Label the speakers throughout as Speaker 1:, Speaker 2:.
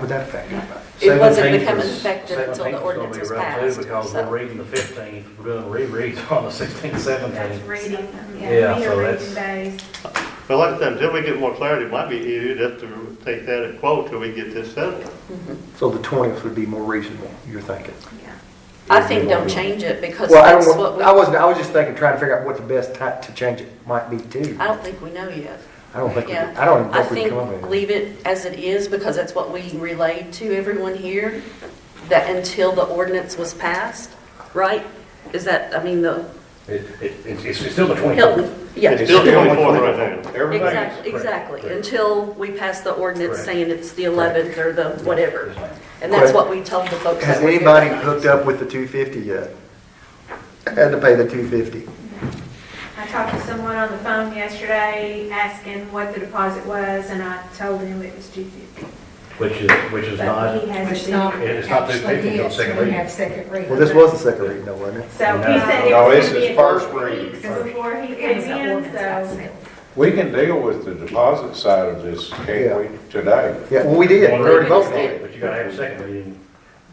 Speaker 1: would that affect anybody?
Speaker 2: It wasn't
Speaker 3: 17th
Speaker 2: becoming
Speaker 3: was-
Speaker 2: effective until
Speaker 3: 17th
Speaker 2: the
Speaker 3: was
Speaker 2: ordinance was
Speaker 3: gonna be rough, too,
Speaker 2: passed.
Speaker 3: Because
Speaker 2: so.
Speaker 3: we're reading the 15th, we're doing rereads on the 16th,
Speaker 4: That's
Speaker 3: 17th.
Speaker 4: reading,
Speaker 3: Yeah,
Speaker 4: yeah, we
Speaker 3: so
Speaker 4: are
Speaker 3: that's-
Speaker 4: reading days.
Speaker 5: But like I said, until we get more clarity, it might be easier just to take that at quote till we get this settled.
Speaker 1: So the 20th would be more reasonable, you're thinking?
Speaker 4: Yeah.
Speaker 2: I think don't change it because
Speaker 1: Well, I
Speaker 2: that's
Speaker 1: don't,
Speaker 2: what
Speaker 1: want-
Speaker 2: we,
Speaker 1: I
Speaker 2: I
Speaker 1: wasn't, I was just thinking, trying to figure out what the best time to change it might be too.
Speaker 2: don't think we know yet.
Speaker 1: I don't think, we-
Speaker 2: Yeah.
Speaker 1: I don't
Speaker 2: I
Speaker 1: even think we can
Speaker 2: think
Speaker 1: come up with it.
Speaker 2: leave it as it is because that's what we relayed to everyone here, that until the ordinance was passed, right? Is that, I mean, the
Speaker 3: It- it- It's it's still the 24th.
Speaker 2: Hilton, yeah.
Speaker 5: It's still 24 right now.
Speaker 3: Everybody's-
Speaker 2: Exactly, exactly,
Speaker 3: Correct.
Speaker 2: until we pass the ordinance
Speaker 3: Correct.
Speaker 2: saying it's the 11th or the whatever.
Speaker 3: Yes, ma'am.
Speaker 2: And that's
Speaker 1: Correct.
Speaker 2: what we told the folks.
Speaker 1: Has
Speaker 2: that were here
Speaker 1: anybody
Speaker 2: tonight.
Speaker 1: hooked up with the 250 yet? Had to pay the 250.
Speaker 4: I talked to someone on the phone yesterday asking what the deposit was, and I told him it was two fifty.
Speaker 3: Which is, which is
Speaker 4: But
Speaker 3: not,
Speaker 4: he
Speaker 6: It's
Speaker 4: hasn't.
Speaker 6: not.
Speaker 3: It is not
Speaker 6: actually
Speaker 3: depicted on
Speaker 6: his.
Speaker 3: second
Speaker 6: We
Speaker 3: reading.
Speaker 6: have second reading.
Speaker 1: Well, this was the second reading though, wasn't it?
Speaker 4: So
Speaker 3: No.
Speaker 4: he said it
Speaker 7: No,
Speaker 4: was
Speaker 7: it's
Speaker 4: gonna be
Speaker 7: his
Speaker 4: a couple
Speaker 7: first reading
Speaker 4: weeks
Speaker 7: first.
Speaker 4: before he
Speaker 6: It
Speaker 4: came
Speaker 6: was an
Speaker 4: in,
Speaker 6: ordinance
Speaker 4: so.
Speaker 6: itself.
Speaker 7: We can deal with the deposit side of this,
Speaker 1: Yeah.
Speaker 7: can't we, today?
Speaker 1: Yeah, well, we did, we
Speaker 3: One
Speaker 1: already
Speaker 3: reading,
Speaker 1: voted on it.
Speaker 3: but you gotta have a second reading.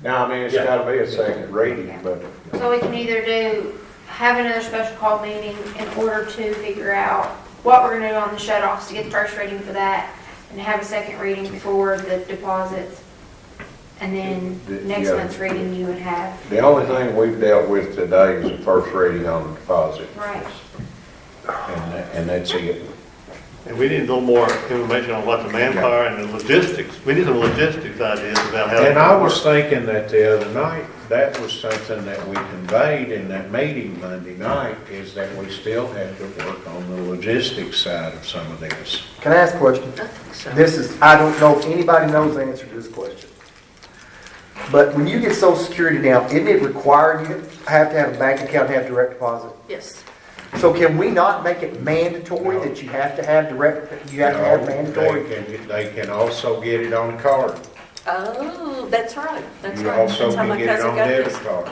Speaker 7: Now, I mean, it's
Speaker 3: Yeah.
Speaker 7: gotta be a second reading, but
Speaker 8: So we can either do, have another special call meeting in order to figure out what we're gonna do on the shut offs to get the first reading for that, and have a second reading for the deposits. And then next
Speaker 7: Yeah.
Speaker 8: month's reading you would have.
Speaker 7: the only thing we've dealt with today is the first reading on the deposit.
Speaker 8: Right.
Speaker 7: And that- and that's it.
Speaker 5: And we need a little more information on what the manpower and the logistics, we need some logistics ideas about how.
Speaker 7: And I was thinking that the other night, that was something that we conveyed in that meeting Monday night, is that we still have to work on the logistics side of some of this.
Speaker 1: Can I ask a question?
Speaker 2: I think so.
Speaker 1: This is, I don't know if anybody knows the answer to this question. But when you get social security now, isn't it required you have to have a bank account and have direct deposit?
Speaker 2: Yes.
Speaker 1: So can we not make it mandatory that you have to have direct, you have to have mandatory?
Speaker 7: They can- They can also get it on card.
Speaker 2: Oh, that's right, that's
Speaker 7: You
Speaker 2: right.
Speaker 7: also
Speaker 2: That's how
Speaker 7: can
Speaker 2: my
Speaker 7: get it
Speaker 2: cousin
Speaker 7: on
Speaker 2: got
Speaker 7: debit
Speaker 2: his.
Speaker 7: card.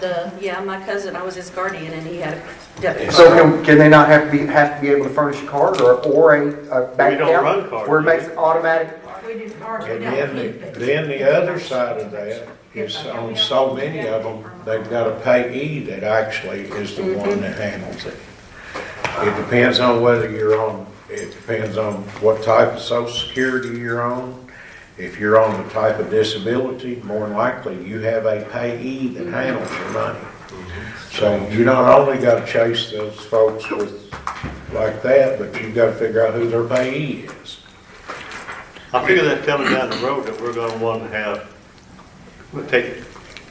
Speaker 2: The, yeah, my cousin, I was his guardian and he had a debit
Speaker 1: So
Speaker 2: card.
Speaker 1: can, can they not have to be, have to be able to furnish a card or, or a, a bank account?
Speaker 5: don't run cards,
Speaker 1: Where it
Speaker 5: do we?
Speaker 1: makes it automatic?
Speaker 4: We did ours, we
Speaker 7: And
Speaker 4: don't
Speaker 7: then,
Speaker 4: keep it.
Speaker 7: the- then the other side of that is on so many of them, they've got a payee that actually is the
Speaker 4: Mm-hmm.
Speaker 7: one that handles it. It depends on whether you're on, it depends on what type of social security you're on. If you're on the type of disability, more than likely, you have a payee
Speaker 4: Mm-hmm.
Speaker 7: that handles your money. So you not only gotta chase those folks with, like that, but you've gotta figure out who their payee is.
Speaker 5: I figure that's coming down the road that we're gonna want to have, we'll take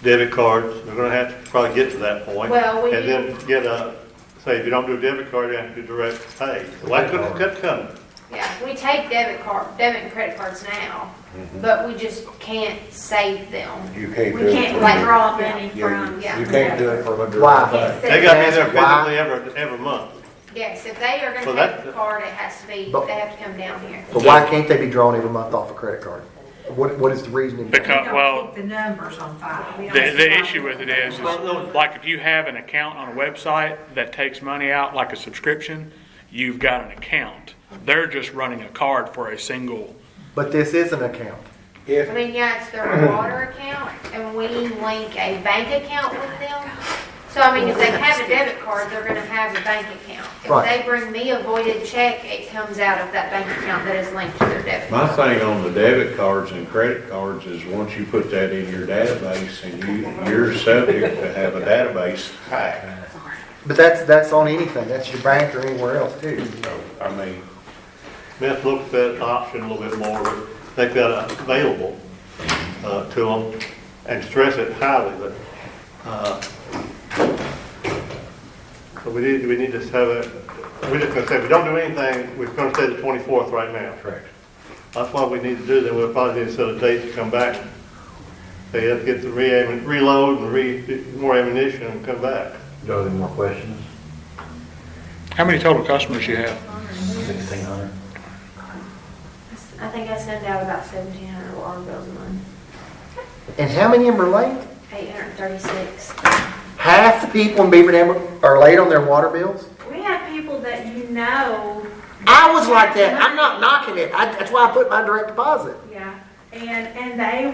Speaker 5: debit cards, we're gonna have to probably get to that point.
Speaker 8: Well, we-
Speaker 5: And then get a, say, if you don't do debit card, you have to do direct pay. Why couldn't that come?
Speaker 8: Yeah, we take debit card, debit and credit cards now, but we just can't save them.
Speaker 7: You can't do
Speaker 4: We
Speaker 7: it.
Speaker 4: can't
Speaker 7: from
Speaker 8: like,
Speaker 7: the-
Speaker 4: withdraw money
Speaker 7: Yeah,
Speaker 4: from,
Speaker 7: you-
Speaker 8: yeah.
Speaker 7: you can't do it from a
Speaker 1: Why?
Speaker 7: direct bank.
Speaker 5: They gotta be there
Speaker 1: That's why-
Speaker 5: physically every, every month.
Speaker 8: Yes, if they are
Speaker 5: Well,
Speaker 8: gonna
Speaker 5: that-
Speaker 8: take the card, it has to be,
Speaker 1: But-
Speaker 8: they have to come down here.
Speaker 1: But why can't they be drawn every month off a credit card? What, what is the reasoning?
Speaker 4: We
Speaker 9: Because,
Speaker 4: don't
Speaker 9: well,
Speaker 4: keep The numbers on file. We
Speaker 9: the,
Speaker 4: don't
Speaker 9: the
Speaker 4: keep
Speaker 9: issue with it
Speaker 4: numbers
Speaker 9: is,
Speaker 4: on
Speaker 9: is
Speaker 4: file.
Speaker 9: like if you have an account on a website that takes money out, like a subscription, you've got an account. They're just running a card for a single.
Speaker 1: But this is an account.
Speaker 7: If,
Speaker 8: I mean, yeah, it's their water account, and we link a bank account with them. So, I mean, if they have a debit card, they're gonna have a bank account.
Speaker 1: Right.
Speaker 8: If they bring me a voided check, it comes out of that bank account that is linked to their debit.
Speaker 7: my thing on the debit cards and credit cards is, once you put that in your database, and you, you're subject to have a database hack.
Speaker 1: But that's, that's on anything, that's your bank or anywhere else too.
Speaker 7: So, I mean,
Speaker 5: We have to look at that option a little bit more, but make that available uh, to them and stress it highly, but, uh, so we need, we need to have a, we're just gonna say, if we don't do anything, we're gonna say the 24th right now.
Speaker 7: correct.
Speaker 5: That's what we need to do, then we'll probably need to set a date to come back. They have to get the re reload and re, more ammunition and come back.
Speaker 3: Are there more questions?
Speaker 9: How many total customers you have?
Speaker 3: 1600?
Speaker 8: I think I send out about seventeen hundred water bills a month,
Speaker 1: And how many of them are late?
Speaker 8: eight hundred and thirty-six.
Speaker 1: Half the people in Beaver Dam are late on their water bills?
Speaker 4: We have people that you know,
Speaker 1: I was like that, I'm not knocking it, I, that's why I put my direct deposit.
Speaker 4: yeah. And, and they